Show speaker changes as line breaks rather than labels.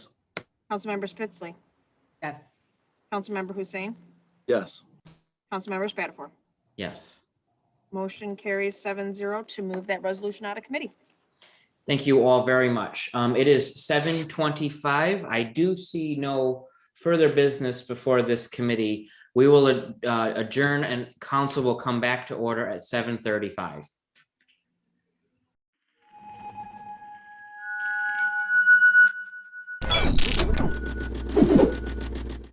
Councilmember Spitzley.
Yes.
Councilmember Hussein.
Yes.
Councilmember Spatafor.
Yes.
Motion carries seven zero to move that resolution out of committee.
Thank you all very much. Um, it is seven twenty-five. I do see no further business before this committee. We will uh, adjourn and council will come back to order at seven thirty-five.